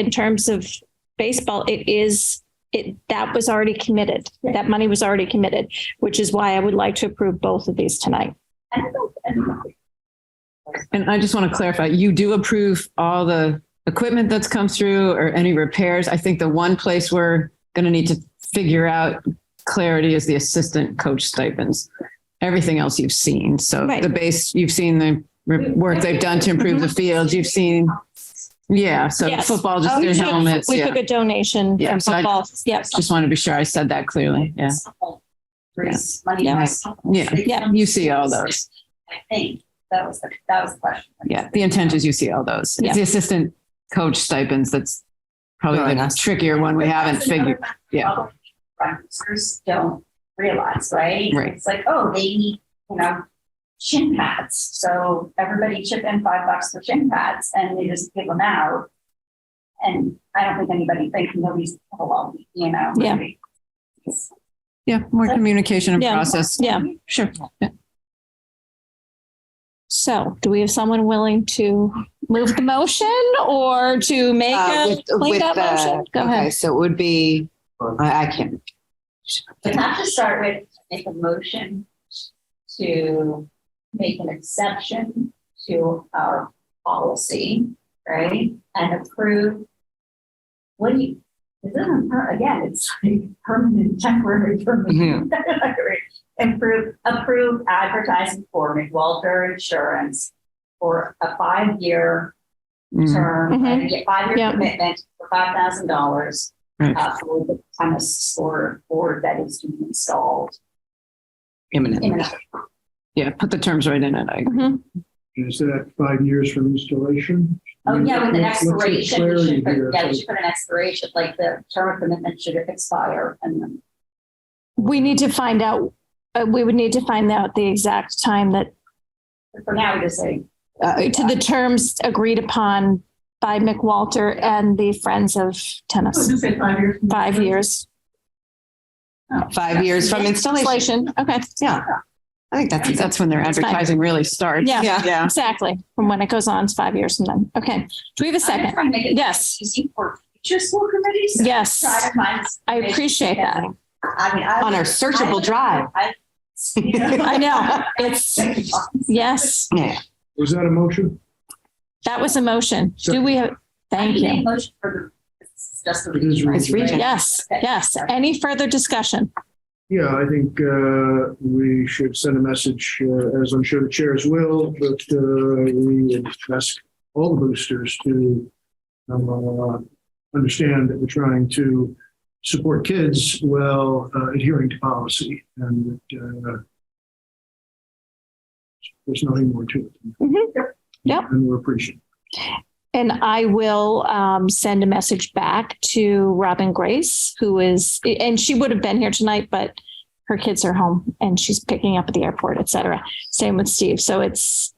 in terms of baseball, it is, it, that was already committed. That money was already committed, which is why I would like to approve both of these tonight. And I just want to clarify, you do approve all the equipment that's come through or any repairs? I think the one place we're going to need to figure out clarity is the assistant coach stipends. Everything else you've seen. So Right. the base, you've seen the re- work they've done to improve the field. You've seen, yeah, so Yes. football, just Oh, their we took- helmets. We yeah. took a donation Yeah, from so I- football. Yes. Just want to be sure I said that clearly. Yeah. Raise money. Yeah. Yeah. Yeah. You see all those. I think that was, the that was the question. Yeah. The intent is you see all those. It's Yeah. the assistant coach stipends that's probably the trickier one we haven't That's another figured. yeah. problem Sponsors don't realize, right? Right. It's like, oh, they need, you know, shin pads. So everybody chip in five bucks for shin pads and they just give them out. And I don't think anybody thinks nobody's, well, you know. Yeah. It's- Yeah, more communication and Yeah. process. Yeah. Sure. So do we have someone willing to move the motion or to make Uh, a with- with cleanup the- motion? Go okay, ahead. So it would be, I, I can't, But not to start with, make a motion to make an exception to our policy, right? And approve. What do you, this isn't, per- again, it's like permanent, temporary, permanent. Improve, approve advertising for McWalter Insurance for a five-year Mm. term, Mhm. and get five-year Yeah. commitment for five thousand dollars uh, Right. for the premise or board that is to be installed imminent. in an Yeah, put the terms right in it. I agree. Mhm. Is that five years from installation? Oh, yeah, with an Let's- let's get expiration, we should, clarity put- yeah, here. we should put an expiration, like the term of commitment should expire and then. We need to find out, uh, we would need to find out the exact time that, For now, we just say, Uh, to the terms agreed upon by McWalter and the Friends of Tennis. five years. Five years. Five years from installation. Inflation. Okay. Yeah. I think That's, that's, that's when their That's fine. advertising really starts. Yeah. yeah. Exactly. From when it goes on, it's five years from then. Okay. Do we have a I'm second? trying to make it Yes. Easy for future school committees. Yes. Try to find- I appreciate that. I mean, I. On our searchable drive. I- I know. It's, yes, Yeah. Was that a motion? that was a motion. Do we have, thank I need you. a Motion for the, it's just the It is region. It's region. Yes, yes. Any further discussion? Yeah, I think uh, we should send a message, uh, as I'm sure the chairs will, but uh, we would ask all the boosters to um, uh, understand that we're trying to support kids while uh, adhering to policy and that, uh, there's nothing more to Mhm. it. Yep. And we're appreciative. And I will um, send a message back to Robin Grace, who is, and she would have been here tonight, but her kids are home and she's picking up at the airport, et cetera. Same with Steve. So it's,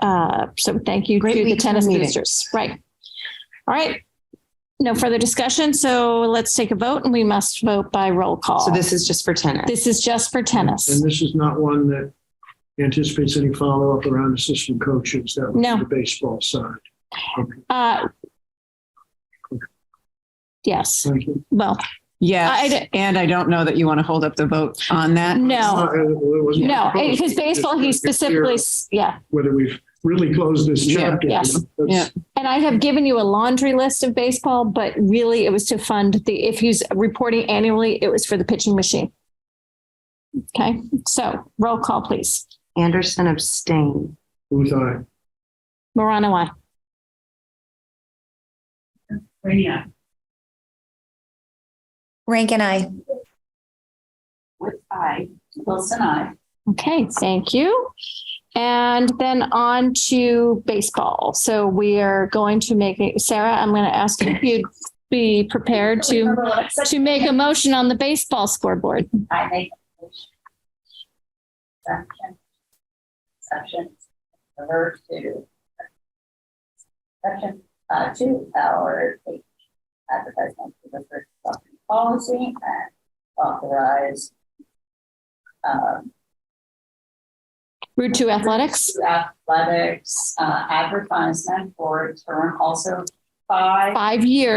uh, so thank you Great to the week for tennis meeting. boosters. Right. All right. No further discussion. So let's take a vote and we must vote by roll call. So this is just for tennis. This is just for tennis. And this is not one that anticipates any follow-up around assistant coaches. That would No. be the baseball side. Okay, Uh, yes. thank you. Well, I Yes. d- And I don't know that you want to hold up the vote on that. no, It's not- Uh, it wasn't no, proposed. because baseball, he It's clear specifically, s- yeah. Whether we've really closed this Yeah. chapter. Yes. That's- And I have given you a laundry list of baseball, but really it was to fund the, if he's reporting annually, it was for the pitching machine. Okay, so roll call, please. Anderson abstain. Booth, aye. Morano, I. Rainier. Rank and I. With I, Wilson, I. Okay, thank you. And then on to baseball. So we are going to make, it- Sarah, I'm going to ask if you'd be prepared to, to make a motion on the baseball scoreboard. I make a motion. Exception. Exception. Revert to. Exception, uh, to our advertisement for the first property policy and authorize. Um, Route two athletics. athletics, uh, advertisement for uh, term also five Five years.